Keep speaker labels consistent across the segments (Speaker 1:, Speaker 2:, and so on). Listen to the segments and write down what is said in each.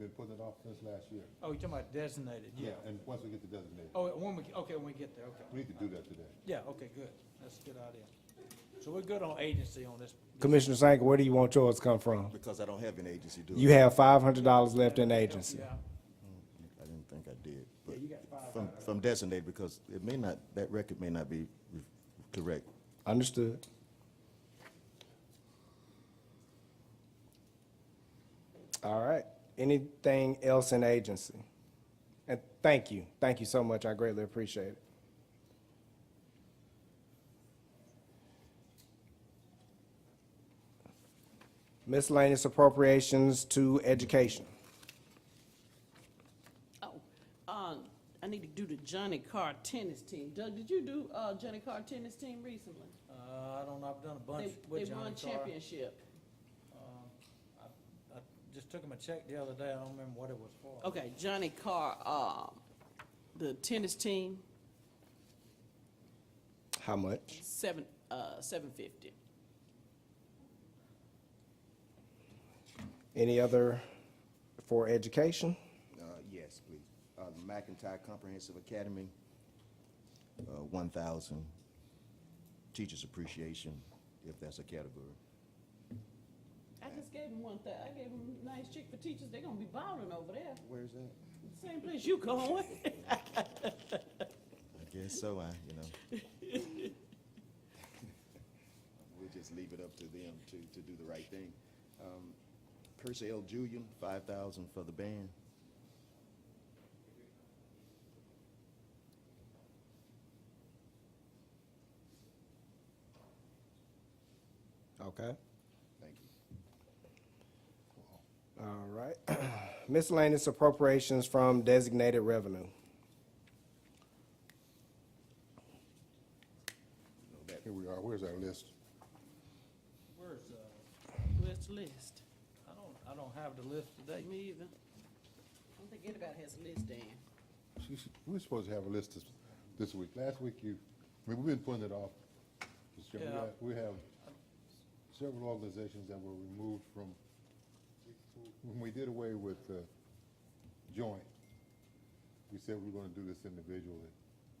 Speaker 1: it off since last year.
Speaker 2: Oh, you're talking about designated, yeah.
Speaker 1: And once we get the designated,
Speaker 2: Oh, when we, okay, when we get there, okay.
Speaker 1: we need to do that today.
Speaker 2: Yeah, okay, good. That's a good idea. So we're good on agency on this.
Speaker 3: Commissioner Sank, where do you want yours to come from?
Speaker 4: Because I don't have an agency, do I?
Speaker 3: You have five hundred dollars left in agency.
Speaker 2: Yeah,
Speaker 4: I didn't think I did, but
Speaker 2: you got five
Speaker 4: from, from designated, because it may not, that record may not be re- correct.
Speaker 3: Understood. All right. Anything else in agency? And thank you. Thank you so much. I greatly appreciate it. Miscellaneous appropriations to education.
Speaker 5: Oh, um, I need to do the Johnny Carr tennis team. Doug, did you do, uh, Johnny Carr tennis team recently?
Speaker 2: Uh, I don't know, I've done a bunch
Speaker 5: They,
Speaker 2: with
Speaker 5: they
Speaker 2: Johnny
Speaker 5: won
Speaker 2: Carr. Uh,
Speaker 5: championship.
Speaker 2: I just took him a check the other day, I don't remember what it was for.
Speaker 5: Okay, Johnny Carr, um, the tennis team,
Speaker 3: How much?
Speaker 5: seven, uh, seven fifty.
Speaker 3: Any other for education?
Speaker 4: Uh, yes, please. Uh, McIntyre Comprehensive Academy, uh, one thousand. Teachers Appreciation, if that's a category.
Speaker 5: I just gave him one thing. I gave him a nice check for teachers. They're gonna be balling over there.
Speaker 4: Where's that?
Speaker 5: Same place you going.
Speaker 4: I guess so, I, you know. We'll just leave it up to them to, to do the right thing. Um, Percy L. Julian, five thousand for the band.
Speaker 3: Okay.
Speaker 4: Thank you.
Speaker 3: All right. Miscellaneous appropriations from designated revenue.
Speaker 1: Here we are, where's our list?
Speaker 2: Where's, uh,
Speaker 5: Where's the list?
Speaker 2: I don't, I don't have the list today.
Speaker 5: Me either. I don't think anybody has a list, Dan.
Speaker 1: She- she- We were supposed to have a list this, this week. Last week you, I mean, we've been putting it off. Mr. Chairman.
Speaker 2: Yeah.
Speaker 1: We have- We have several organizations that were removed from, when we did away with uh, joint, we said we were gonna do this individually.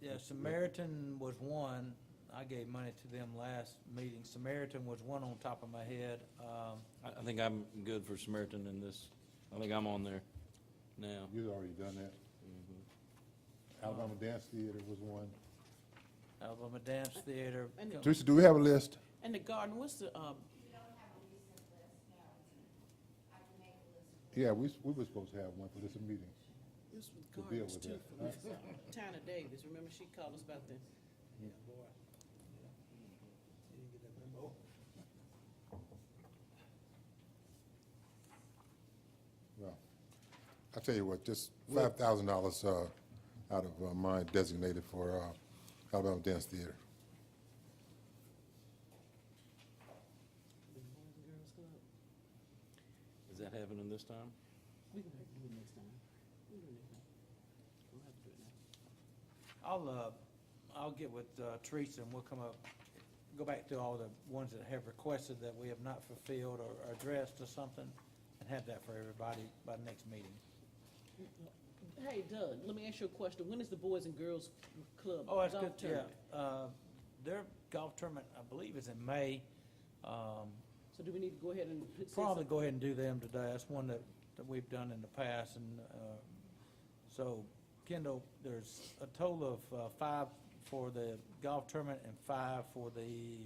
Speaker 2: Yeah, Samaritan was one, I gave money to them last meeting. Samaritan was one on top of my head. Um,
Speaker 6: I, I think I'm good for Samaritan in this. I think I'm on there now.
Speaker 1: You'd already done that. Alabama Dance Theater was one.
Speaker 2: Alabama Dance Theater.
Speaker 5: And the-
Speaker 1: Teresa, do we have a list?
Speaker 5: And the garden, what's the, uh,
Speaker 7: We don't have a recent list, no. I can make a list.
Speaker 1: Yeah, we, s- we were supposed to have one for this meeting.
Speaker 5: This was
Speaker 1: To deal
Speaker 5: gardens
Speaker 1: with
Speaker 5: too,
Speaker 1: that,
Speaker 5: for Miss, uh, Tana Davis, remember she called us about the,
Speaker 1: Well, I tell you what, just five thousand dollars, uh, out of uh, mine designated for, uh, Alabama Dance Theater.
Speaker 5: the Boys and Girls Club?
Speaker 6: Is that happening this time?
Speaker 5: We can have to do it next time. We can do it next time. We'll have to do it now.
Speaker 2: I'll, uh, I'll get with uh, Teresa and we'll come up, go back to all the ones that have requested that we have not fulfilled or addressed or something, and have that for everybody by the next meeting.
Speaker 5: Hey Doug, let me ask you a question. When is the Boys and Girls Club
Speaker 2: Oh, that's
Speaker 5: golf
Speaker 2: good,
Speaker 5: tournament?
Speaker 2: yeah. Uh, Their golf tournament, I believe, is in May. Um,
Speaker 5: So do we need to go ahead and put? send
Speaker 2: Probably
Speaker 5: some-
Speaker 2: go ahead and do them today. That's one that, that we've done in the past, and, uh, so, Kendall, there's a total of, uh, five for the golf tournament and five for the,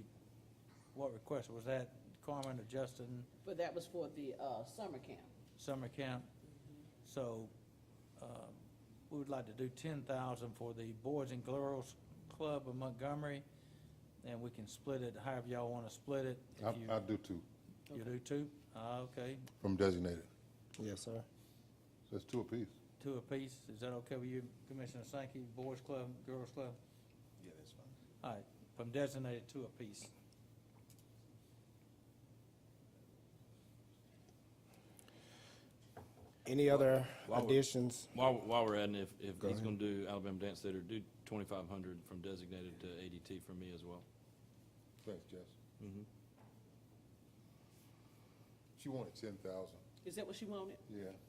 Speaker 2: what request, was that Carmen or Justin,
Speaker 5: But that was for the, uh, summer camp.
Speaker 2: summer camp? So, um, we would like to do ten thousand for the Boys and Girls Club of Montgomery, and we can split it however y'all wanna split it. If
Speaker 1: I'll,
Speaker 2: you-
Speaker 1: I'll do two
Speaker 2: You do two? Ah, okay.
Speaker 1: from designated.
Speaker 3: Yes, sir.
Speaker 1: So it's two apiece.
Speaker 2: two apiece, is that okay with you, Commissioner Sankey, Boys Club, Girls Club?
Speaker 4: Yeah, that's fine.
Speaker 2: All right, from designated two apiece.
Speaker 3: Any other
Speaker 6: Why would-
Speaker 3: additions?
Speaker 6: While, while we're adding, if, if he's gonna do Alabama Dance Theater, do twenty-five hundred from designated to ADT for me as well.
Speaker 1: Thanks, Jess.
Speaker 4: Mm-hmm.
Speaker 6: Mhm.
Speaker 1: She wanted ten thousand.
Speaker 5: Is that what she wanted?
Speaker 1: Yeah.